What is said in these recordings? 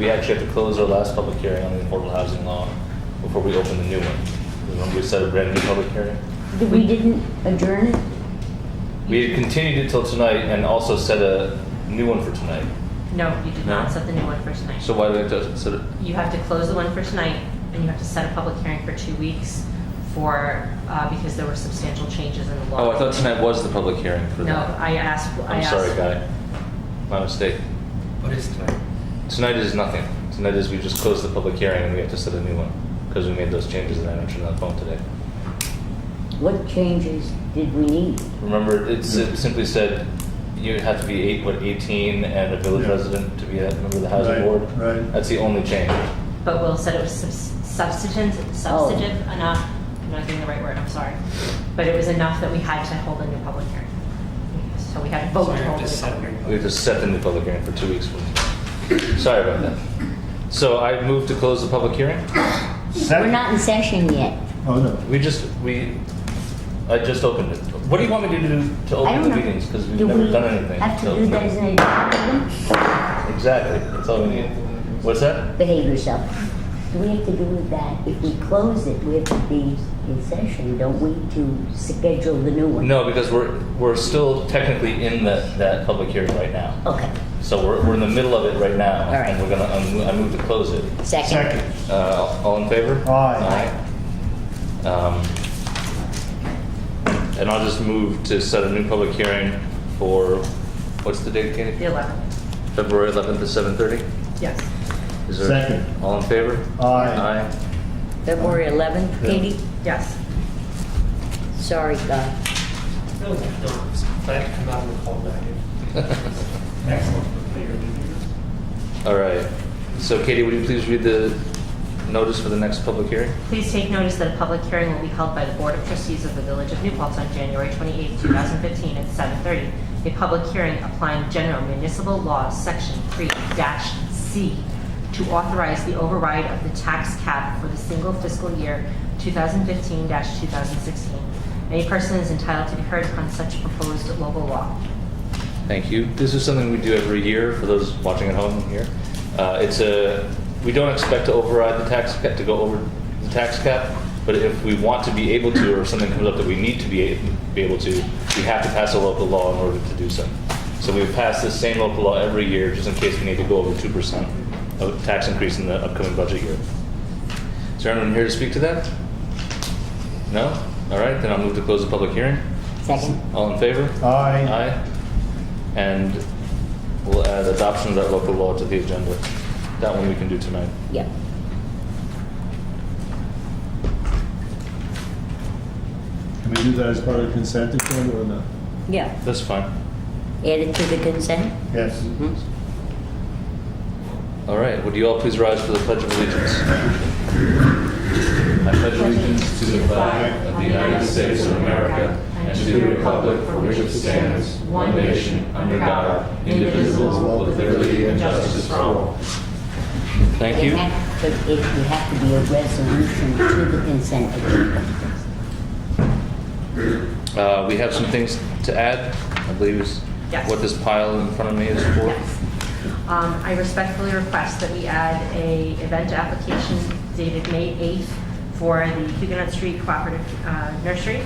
We actually have to close our last public hearing on the affordable housing law before we open the new one. Remember we set a brand new public hearing? We didn't adjourn it? We had continued it till tonight and also set a new one for tonight. No, you did No? not set the new one for tonight. So why do we have to set it? You have to close the one for tonight, and you have to set a public hearing for two weeks for, uh, because there were substantial changes in the law. Oh, I thought tonight was the public hearing for No, that. I asked, I I'm asked. sorry, guy. My mistake. What is tonight? Tonight is nothing. Tonight is we just closed the public hearing and we have to set a new one because we made those changes that I mentioned on the phone today. What changes did we need? Remember, it s- it simply said you have to be eight, what, 18 and a village Yeah. resident to be a member of the housing Right, board? right. That's the only change. But Will said it was subs- substantive, substantive enough, I'm not getting the right word, I'm sorry. But it was enough that we had to hold a new public hearing. So we had to vote So I to have hold a to new set public hearing. We just set the new public hearing for two weeks from Sorry about that. So I move to close the public hearing? We're not in session yet. Oh, no. We just, we, I just opened it. What do you want me to do to I open don't Oh, the know. meetings? Because we've Do never we done anything. Have to So- do that as an agenda? Exactly, that's all we need. What's that? Behave yourself. Do we have to do with that? If we close it, we have to be in session, don't we, to schedule the new one? No, because we're, we're still technically in that, that public hearing right now. Okay, So we're, we're in the middle of it right now. All right. And we're gonna, I move- I move to close it. second. Second. Uh, all in favor? Aye. Aye. Um, and I'll just move to set a new public hearing for, what's the date, The Katie? 11th, February 11th at 7:30? yes. Is there- Second. All in favor? Aye. Aye. February 11th, Yeah. Katie? Yes. Sorry, uh, God. Really, no, it's glad to come out of the cold back in. Excellent. All right. So Katie, would you please read the notice for the next public hearing? Please take notice that a public hearing will be held by the Board of Trustees of the Village of New Paltz on January 28, 2015, at 7:30. A public hearing applying general municipal laws, Section 3-C, to authorize the override of the tax cap for the single fiscal year 2015-2016. Any person is entitled to be heard on such proposed local law. Thank you. This is something we do every year for those watching at home here. Uh, it's a, we don't expect to override the tax cap, to go over the tax cap, but if we want to be able to, or if something comes up that we need to be, a- be able to, we have to pass a local law in order to do so. So we pass the same local law every year, just in case we need to go over 2% of tax increase in the upcoming budget year. Is there anyone here to speak to that? No? All right, then I'll move to close the public hearing. Second. All in favor? Aye. Aye. And we'll add adoption of that local law to the agenda. That one we can do tonight. Yep. Can we do that as part of consent agenda or not? Yeah. That's fine. Add it to the consent? Yes. Mhm. All right, would you all please rise for the Pledge of Allegiance? I pledge allegiance to the flag of the United States of America and to the republic for which it stands, one nation, under God, indivisible, with liberty and justice for all. Thank you. It had- But it, you have to be a resolution to the consent agenda. Uh, We have some things to add, I believe is Yes. what this pile in front of me is for. Yes. Um, I respectfully request that we add a event application dated May 8th for the Huguenot Street Cooperative uh, Nursery.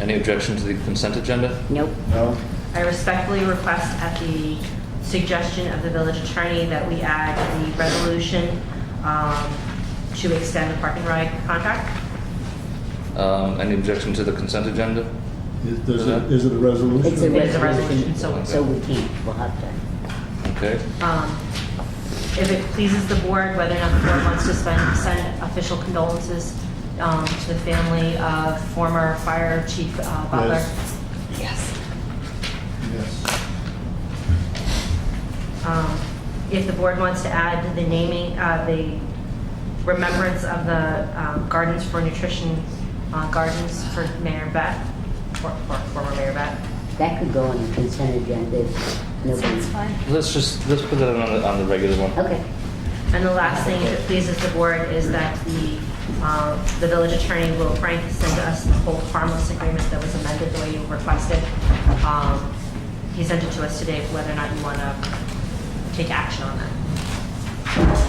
Any objection to the consent agenda? Nope. No? I respectfully request at the suggestion of the village attorney that we add the resolution um, to extend the park and ride contract. Um, Any objection to the consent agenda? Is does it- is it a resolution? It's a It is a resolution, resolution, so- so we can't, we'll have to. Okay. Um, If it pleases the board, whether or not the board wants to spend- send official condolences um, to the family of former Fire Chief uh, Butler. Yes. Yes. Yes. Um, If the board wants to add the naming, uh, the remembrance of the um, Gardens for Nutrition, uh, Gardens for Mayor Bet, for for former Mayor Bet. That could go on the consent agenda if nobody. Let's just, let's put that on the, on the regular one. Okay. And the last thing, if it pleases the board, is that the, um, the village attorney, Will Frank, send us the whole harmless agreement that was amended the way you requested. Um, He sent it to us today, whether or not you want to take action on that.